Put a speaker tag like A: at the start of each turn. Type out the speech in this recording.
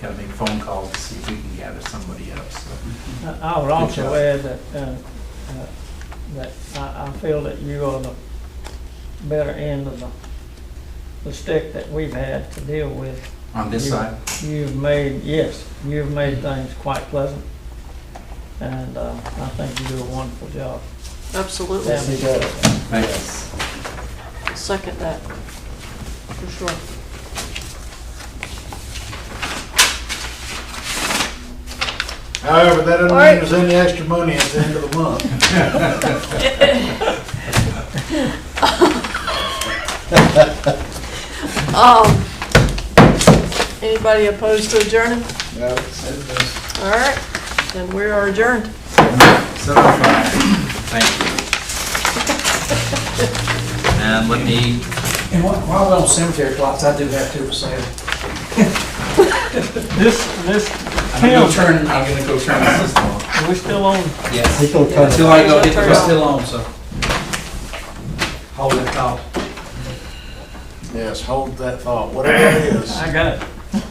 A: gotta make phone calls to see if we can gather somebody up, so.
B: I- I would
A: job.
B: also add that, uh, uh, that I, I feel that you are the better end of the, the stick that we've had to deal with.
A: On this
B: You-
A: side,
B: You've made, yes, you've made things quite pleasant, and uh, I think you do a wonderful job.
C: Absolutely.
B: Family does.
A: thanks.
C: Second that, for sure.
D: However, that doesn't mean
C: Alright.
D: there's any extra money at the end of the month.
C: Um, anybody opposed to adjourning?
D: No.
C: All right, then we are adjourned.
A: So, uh, thank you. And let me
E: And while while we're on cemetery plots, I do have two for sale.
B: This, this,
E: I'm gonna go
B: Tim,
E: turn, I'm gonna go turn this on.
B: we're still on,
E: Yes,
D: He'll come.
E: until I go get, we're still on, so. Hold that thought.
D: Yes, hold that thought, whatever it is.
B: I got it.